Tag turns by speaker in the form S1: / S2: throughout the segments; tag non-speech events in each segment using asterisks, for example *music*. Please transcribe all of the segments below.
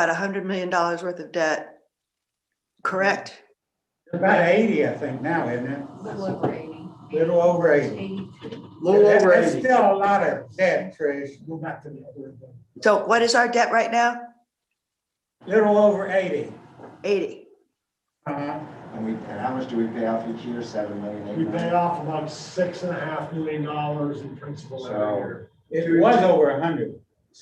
S1: about a hundred million dollars worth of debt. Correct?
S2: About eighty, I think now, isn't it?
S3: Little over eighty.
S2: Little over eighty.
S3: Eighty-two.
S4: Little
S2: That-
S4: over
S2: That's
S4: eighty.
S2: still a lot of debt, Trish. Go back to the other one.
S1: So what is our debt right now?
S2: Little over eighty.
S1: Eighty.
S2: Uh,
S5: And we, and how much do we pay off each year? Seven million, eight
S6: We pay
S5: million?
S6: off about six and a half million dollars in principal
S5: So-
S6: every year.
S2: It was over a hundred.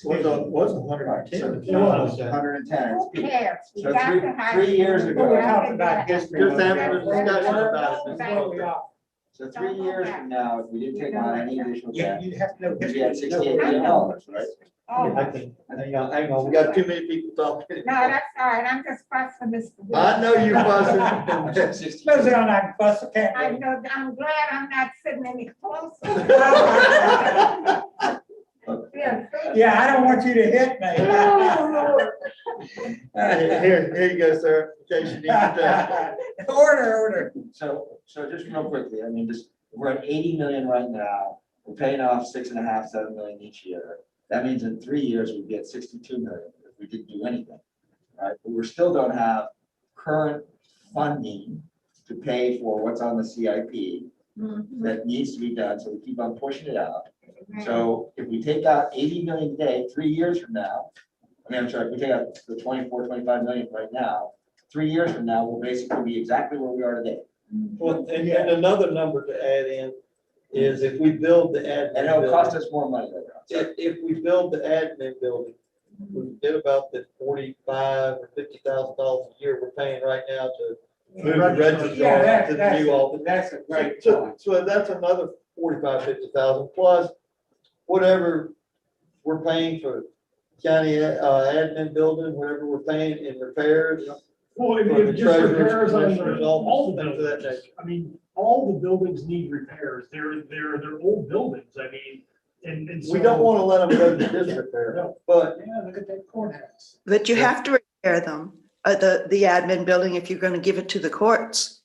S4: Was a, was a hundred and
S5: Right, so
S4: ten.
S5: it's
S6: It was.
S5: Hundred and ten.
S3: Who cares? We
S5: So
S3: got
S5: three-
S3: the high
S5: three years
S3: school.
S5: ago.
S2: We're
S3: We got
S2: talking
S3: the
S2: about
S3: debt.
S2: history.
S4: Just having a discussion about it. Ms.
S2: Well, we
S4: Walker.
S2: are.
S5: So three years from now, if we didn't take on any additional
S2: You,
S5: debt,
S2: you have to know.
S5: we'd be at
S2: history.
S5: sixty-eight million dollars, right?
S3: Oh,
S4: I think, hang on, hang on, we got too many people talking.
S3: no, that's all right. I'm just fussing Mr. Wood.
S4: I know
S5: *laughs*
S4: you
S5: We're
S4: wasn't.
S5: *laughs* at 60
S2: Close it on that bus, okay?
S3: I know, I'm glad I'm not sitting any
S5: *laughs*
S3: closer. Yeah, thank you.
S2: *laughs* Yeah, I don't want you to hit me.
S4: Here, here- here you go, sir, in case you need to.
S2: *laughs* Order, order.
S5: So, so just real quickly, I mean, just, we're at eighty million right now, we're paying off six and a half, seven million each year. That means in three years, we'd be at sixty-two million if we didn't do anything. Right, but we still don't have current funding to pay for what's on the CIP
S3: Mhm.
S5: that needs to be done, so we keep on pushing it out. So if we take out eighty million today, three years from now, I mean, I'm sorry, if we take out the 24, 25 million right now, three years from now, we'll basically be exactly where we are today.
S4: Well, and, and another number to add in is if we build the admin.
S5: And it'll cost
S4: building-
S5: us more money later on.
S4: If, if we build the admin building, we did about the forty-five or fifty thousand dollars a year we're paying right now to move the registrars
S2: Yeah, that's,
S4: to the
S2: that's,
S4: new office.
S2: that's a great
S4: So,
S2: point.
S4: so that's another forty-five, fifty thousand plus whatever we're paying for county uh, admin building, whatever we're paying in repairs.
S6: Well, if
S4: For the
S6: it just
S4: treasurer's
S6: repairs, I
S4: commissioner's
S6: mean, all the
S4: office, things of that
S6: buildings, I mean, all the buildings need repairs. They're, they're, they're old buildings. I mean, and, and so.
S4: We don't want to let them go to disrepair, but
S6: Yeah, look at that courthouse.
S1: But you
S4: Yeah.
S1: have to repair them, uh, the, the admin building if you're gonna give it to the courts.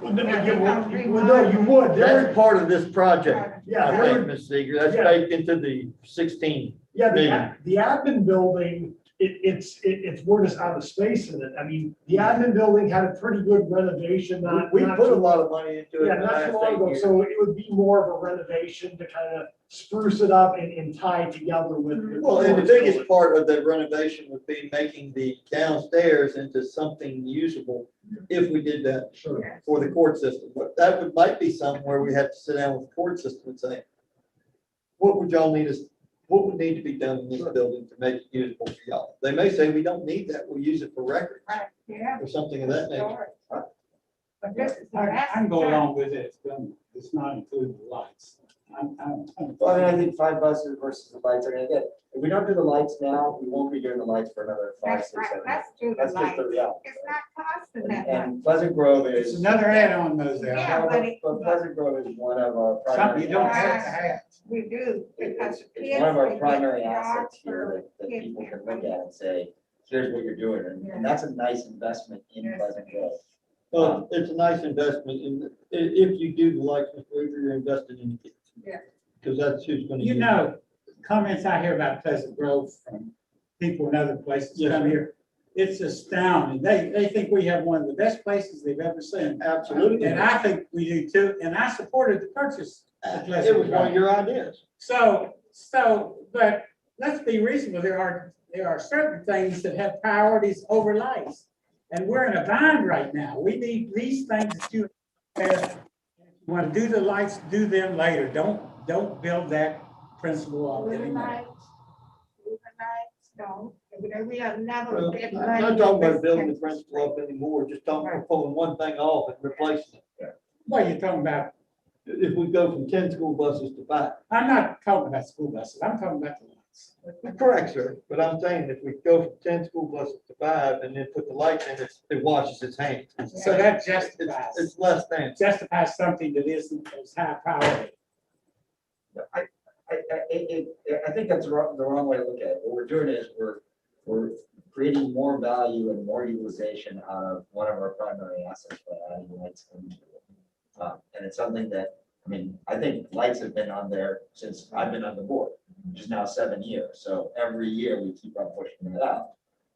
S6: Well, no,
S3: Yeah,
S6: you
S3: we gotta
S6: would- well, no, you would. There-
S4: that's part of this project.
S6: Yeah,
S4: I
S6: there-
S4: heard, Ms. Seeger, that's
S6: Yeah.
S4: baked into the sixteen.
S6: yeah, the,
S4: Yeah.
S6: ad- the admin building, it, it's, it, it's, we're just out of space in it. I mean, the admin building had a pretty good renovation, not.
S4: We we
S6: not
S4: put a
S6: too-
S4: lot of money into it
S6: Yeah,
S4: in the
S6: not too long
S4: last eight
S6: ago,
S4: years.
S6: so it would be more of a renovation to kind of spruce it up and, and tie it together with. with
S4: Well, and the
S6: Florence
S4: biggest part of the renovation would be making the downstairs into something usable if we did that
S6: Sure.
S4: for the court system. But that would, might be something where we have to sit down with the court system and say, what would y'all need us, what would need to be done in this building to make it usable for y'all? They may say, we don't need that, we'll use it for records
S3: Right, Yeah.
S4: or something of that nature.
S3: sure. But this is the
S7: I
S3: last
S7: I can go
S3: time.
S7: along with it, don't- it's not including the lights. I'm, I'm, I'm.
S5: Well, I
S4: uh,
S5: mean, I think five buses versus the lights are gonna get, if we don't do the lights now, we won't be doing the lights for another five,
S3: That's
S5: six,
S3: right,
S5: seven.
S3: let's do the
S5: That's just
S3: lights.
S5: the reality.
S3: It's not costing
S5: And-
S3: that much.
S5: And Pleasant Grove
S7: It's
S5: is,
S7: another add-on those there.
S3: Yeah, but it-
S5: but Pleasant Grove is one of our
S7: Something you
S5: primary,
S7: don't
S5: it-
S7: have to have.
S3: We do, because
S5: it's,
S3: kids.
S5: it's one of
S3: they
S5: our
S3: get
S5: primary
S3: jobs
S5: assets
S3: for-
S5: here that, that
S3: kids
S5: people
S3: get
S5: can look
S3: money.
S5: at and say, here's what you're doing, and, and that's a nice investment in
S3: Yes.
S5: Pleasant Grove.
S4: Well, it's a nice investment and i- if you do the lights, Mr. Weaver, you're investing in the kids.
S3: Yeah.
S4: Because that's who's gonna.
S7: You
S4: use it.
S7: know, comments I hear about Pleasant Grove from people in other places
S4: Yes,
S7: come
S4: sir.
S7: here. It's astounding. They, they think we have one of the best places they've ever seen.
S4: Absolutely.
S7: And I think we do too, and I supported the purchase. of
S4: Uh, It was
S7: Pleasant
S4: one of
S7: Grove.
S4: your ideas.
S7: So, so, but let's be reasonable. There are, there are certain things that have priorities over lights. And we're in a bind right now. We need these things that you want to do the lights, do them later. Don't, don't build that principle
S3: Blue
S7: up anymore.
S3: lights, blue lights, no, we- we have never.
S4: Well,
S3: been
S4: I'm
S3: like
S4: not talking
S3: this
S4: about building the
S3: since-
S4: principal up anymore, just talking about pulling one thing off and replacing it.
S7: What are you talking about?
S4: If we go from ten school buses to five.
S7: I'm not talking about school buses. I'm talking about the lights.
S4: Correct, sir, but I'm saying if we go from ten school buses to five and then put the lights in, it's- it washes its hands.
S7: So that
S4: It's,
S7: justifies,
S4: it's less than.
S7: justifies something that isn't as high priority.
S5: I, I, I, it, it- I think that's the wrong, the wrong way to look at it. What we're doing is we're, we're creating more value and more utilization out of one of our primary assets by adding lights into it. Uh, And it's something that, I mean, I think lights have been on there since I've been on the board, which is now seven years. So every year we keep on pushing it out.